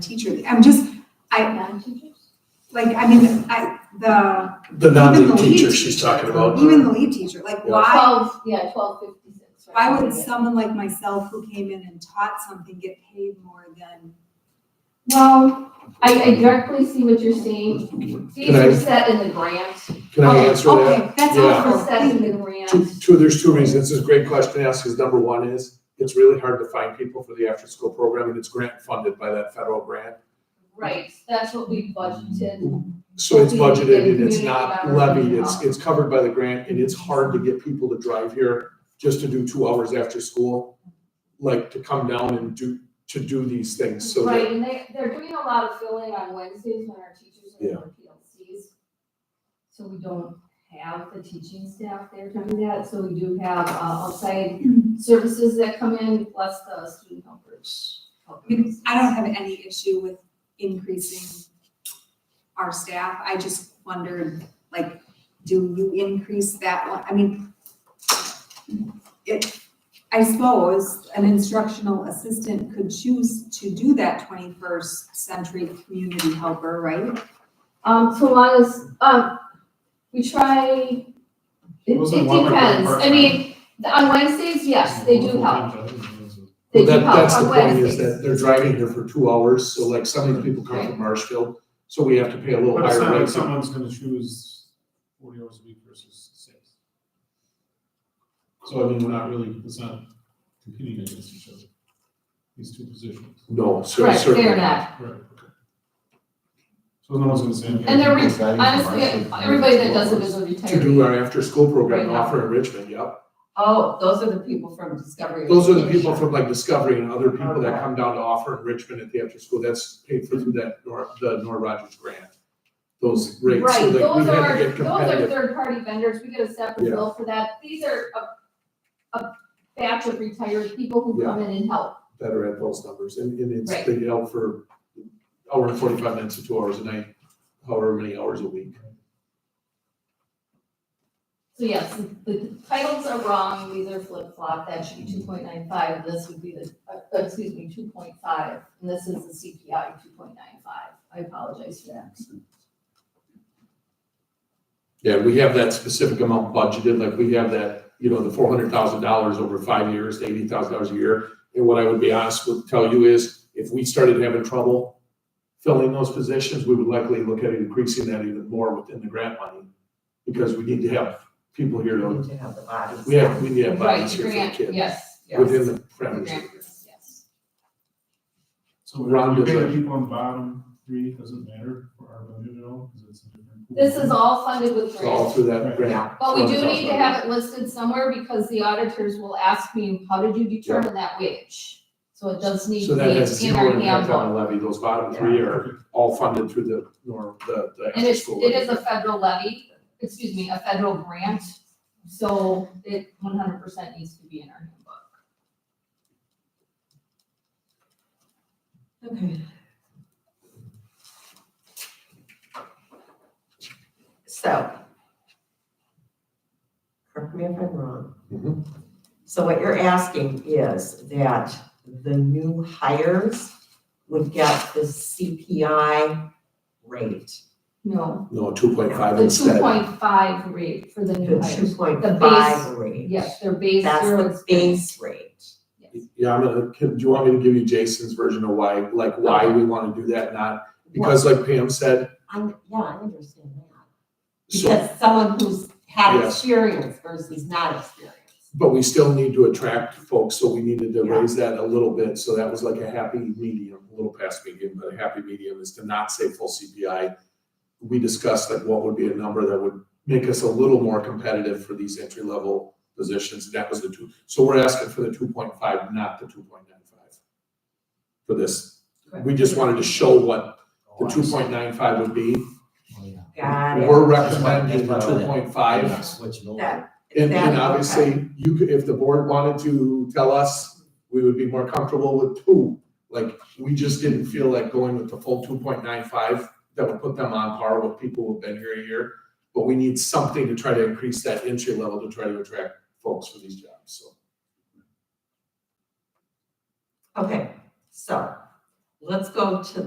teacher, I'm just, I, like, I mean, I, the, The Even the non-lead lead teacher she's teacher. talking about. even the lead teacher, like, Yeah. why, Twelve, yeah, twelve fifty-six. why would someone like myself who came in and taught something get paid more than? Well, I, I directly see what you're saying. These Can I- are set in the grant. Can I Oh, answer that? Okay, that's Yeah. Those helpful, are set in thank the you. Two, grant. two, there's two reasons. It's a great question to ask, because number one is, it's really hard to find people for the after-school program, and it's grant funded by that federal grant. Right, that's what we budgeted. So it's budgeted and it's Community not members. levied, it's, it's covered by the grant, and it's hard to get people to drive here just to do two hours after school, like to come down and do, to do these things, so Right, that, and they, they're doing a lot of filling on Wednesdays when our teachers are in Yeah. their PLCs. So we don't have the teaching staff there to do that, so we do have uh, outside services that come in, plus the student helpers. I mean, I don't have any issue with increasing our staff, I just wondered, like, do you increase that one, I mean, it, I suppose an instructional assistant could choose to do that twenty-first century community helper, right? Um, so long as, um, we try, it it depends, Wasn't one like part-time? I mean, the- on Wednesdays, yes, they do help, they Well, do that, help that's the on point, is Wednesdays. that they're driving here for two hours, so like some of these people come Right. from Marshfield, so we have to pay a little But it's higher not like rate. to- someone's gonna choose forty hours a week versus six. So I mean, we're not really, it's not competing against each other, these two positions. No, cer- Right, certainly. they're not, Right. okay. So no one's gonna say. and they're, re- honestly, everybody that does it is a To do retiree. our after-school program Right now. offer in Richmond, yep. Oh, those are the people from Discovery. Those are the Education. people from like Discovery and other people that Okay. come down to offer in Richmond at the after-school, that's paid for through that Nor, the Nor Rogers grant. Those rates, so Right, like we those had are, to get those are competitive. third-party vendors, we get a separate Yeah. bill for that, these are a, a batch of retired people who Yeah. come in and help. Better at those numbers and, and it's, Right. they get out for hour and forty-five minutes to two hours a night, however many hours a week. So yes, the titles are wrong, these are flip-flop, that should be two point nine five, this would be the, uh, excuse me, two point five, and this is the CPI two point nine five, I apologize for that. Yeah, we have that specific amount budgeted, like we have that, you know, the four hundred thousand dollars over five years, eighty thousand dollars a year. And what I would be honest with, tell you is, if we started having trouble filling those positions, we would likely look at increasing that even more within the grant money. Because we need to have people here We to, need to have the bodies. we have, we need to have Mm-hmm. Right, bodies here for the grant, kids, yes, Yes. within the parameters. grants, yes. So we're, Rhonda's we pay the like- people on the bottom three, doesn't matter for our budget at all, because it's a different. pool. This is all funded with So all grants, through that grant. but we do $400,000. need to have it listed somewhere because the auditors will ask me, how did you determine that wage? So it does need So to that has be in our zero impact on handbook, the levy. Those bottom three are Okay. all funded through the, nor, the, the. and it's, after-school it levy. is a federal levy, excuse me, a federal grant, so it one hundred percent needs to be in our handbook. Okay. So. Correct me if I'm wrong. Mhm. So what you're asking is that the new hires would get the CPI rate, No, No, two point five the two instead. point five rate for the new the hires. two point five rate. Yes, they're based That's zero the experience. base rate. Yeah, I'm gonna, can, do you want me to give you Jason's version of why, like why we wanna do that, not, because like Pam said, I, yeah, I understand that. so, Because someone who's had Yes. experience versus not experienced. but we still need to attract folks, so we needed to Yeah. raise that a little bit, so that was like a happy medium, a little past medium, but a happy medium is to not say full CPI. We discussed like what would be a number that would make us a little more competitive for these entry level positions, that was the two, so we're asking for the two point five, not the two point nine five. For this, we just wanted to show what the two point nine five would be. Got it. We're recommending the That's why- two point five. Yeah, switching over. That- And, and Exactly. obviously, you could, if the board wanted to tell us, we would be more comfortable with two. Like, we just didn't feel like going with the full two point nine five, that would put them on par with people who've been here a year. But we need something to try to increase that entry level to try to attract folks for these jobs, so. Okay, so let's go to